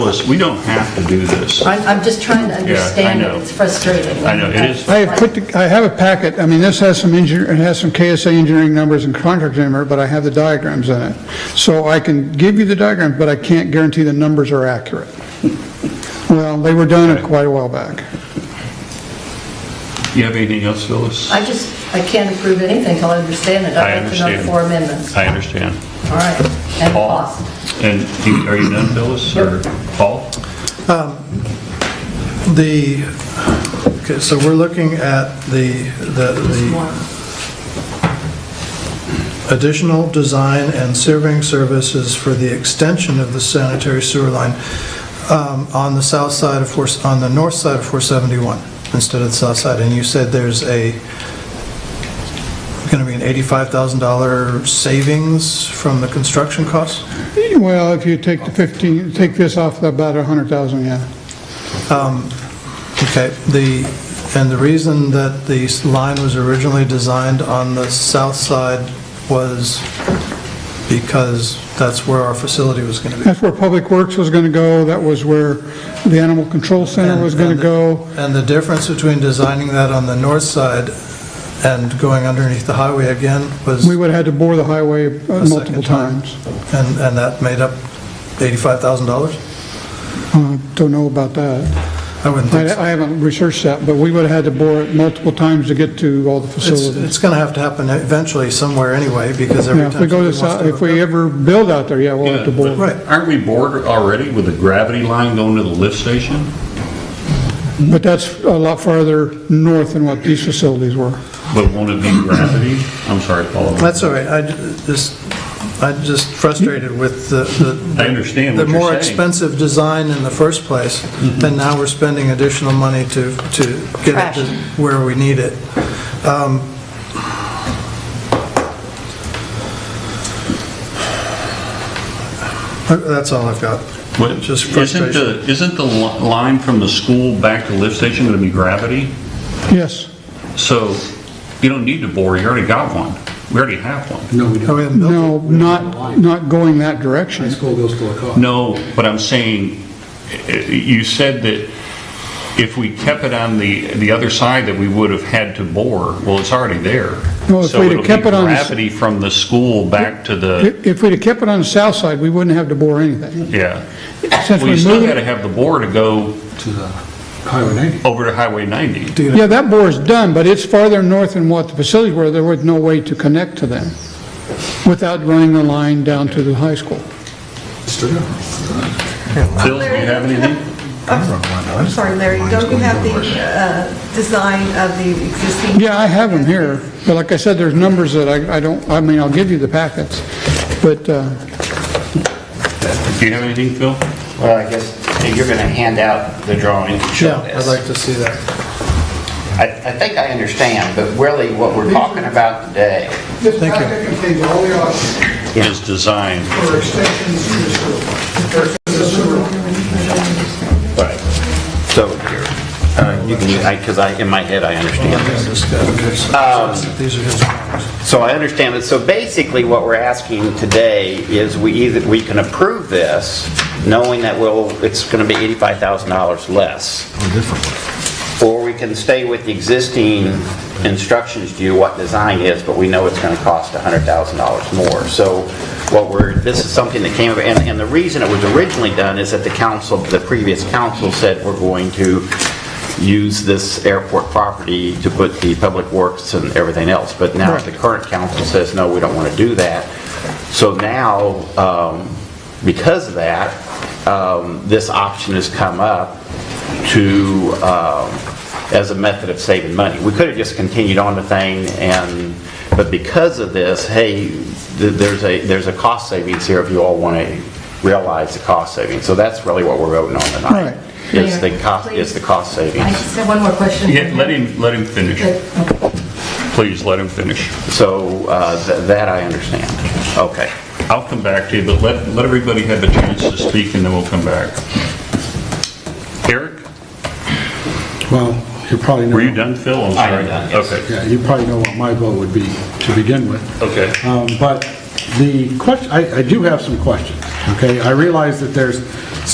us, we don't have to do this. I'm, I'm just trying to understand it, know. it's frustrating. I know, it is. I have put, the- I have a packet, I mean, this has some engineer, it has some KSA engineering numbers and contract number, but I have the diagrams in it. So I can give you the diagrams, but I can't guarantee the numbers are accurate. Well, they were done quite a while back. You have anything else, Phyllis? I just, I can't approve anything till I understand it. I I'd like to know understand. the four amendments. I understand. All right, and the Paul? cost. And you- are you done, Phyllis, or Paul? The, okay, so we're looking at the, the- the additional design and surveying services for the extension of the sanitary sewer line um, on the south side of, four on the north side of 471 instead of the south side. And you said there's a, going to be an $85,000 savings from the construction costs? Well, if you take the 15, take this off about 100,000, yeah. Okay, the, and the reason that the line was originally designed on the south side was because that's where our facility was going to be. That's where Public Works was going to go, that was where the Animal Control Center was going to go. And the difference between designing that on the north side and going underneath the highway again was, We would have had to bore the highway uh, second multiple time. times. and, and that made up $85,000? Uh, Don't know about that. I wouldn't think so. I I haven't researched that, but we would have had to bore it multiple times to get to all the It's, facilities. it's going to have to happen eventually somewhere anyway, because every Now, time. if we go to, somebody wants South- to if we hook ever build out there, yeah, we'll have to bore. it. Right. Aren't we bored already with the gravity line going to the lift station? But that's a lot farther north than what these facilities were. But won't it be gravity? I'm sorry, Paul. That's all right, I ju- just, I'm just frustrated with the... the- I understand what The you're more saying. Mm-hmm. expensive design in the first place, and now we're spending additional money to, to get Trash. it to where we need it. Um, uh, That's all I've got. What- Just Isn't frustration. the, isn't the li- line from the school back to the lift station going to be gravity? Yes. So you don't need to bore, you already got one. We already have one. Go ahead and build No, it. not, not going that High direction. school goes to a co-op. No, but I'm saying, eh, you said that if we kept it on the, the other side, that we would have had to bore. Well, it's already there. No, if So we'd have it'll be kept it on the s- Gravity from the school back to the, If if we'd have kept it on the south side, we wouldn't have to bore anything. yeah. Since Well, you we still moved, got to have the bore to go To the Highway 90. over to Highway 90. Do you- yeah, that bore is done, but it's farther north than what the facilities were. There was no way to connect to them without running the line down to the high school. Straight up. Bill, do you have anything? I'm sorry, Larry, don't you have the uh, design of the existing? Yeah, I have them here, but like I said, there's numbers that I I don't, I mean, I'll give you the packets, but uh, Do you have anything, Phil? Well, I guess you're going to hand out the drawing to show Yeah, I'd this. like to see that. I I think I understand, but really what we're talking about today, This Thank you. packet contains all the options Is design. for extensions to the sewer. Or to the sewer line. so uh, you can, because I, in my head, I understand this. These are his drawings. So I understand it. So basically, what we're asking today is we either, we can approve this, knowing that we'll, it's going to be $85,000 less. Or we can stay with the existing instructions to you what design is, but we know it's going to cost $100,000 more. So what we're, this is something that came, and, and the reason it was originally done is that the council, the previous council said we're going to use this airport property to put the public works and everything else. But now the current council says, no, we don't want to do that. So now, um, because of that, um, this option has come up to, um, as a method of saving money. We could have just continued on the thing and, but because of this, hey, th- there's a, there's a cost savings here if you all want to realize the cost savings. So that's really what we're voting on Right. tonight. Is the Mayor, cost, is the cost I savings. just have one more question. Yeah, let him, let him finish. Please, let him finish. So uh, th- that I understand. Okay. I'll come back to you, but let, let everybody have a chance to speak, and then we'll come back. Eric, Well, you probably know. were you done, Phil? I'm I sorry. am done, yes. Okay, Yeah, you probably know what my vote would be to begin with. okay. Um, But the question, I I do have some questions, okay? I realize that there's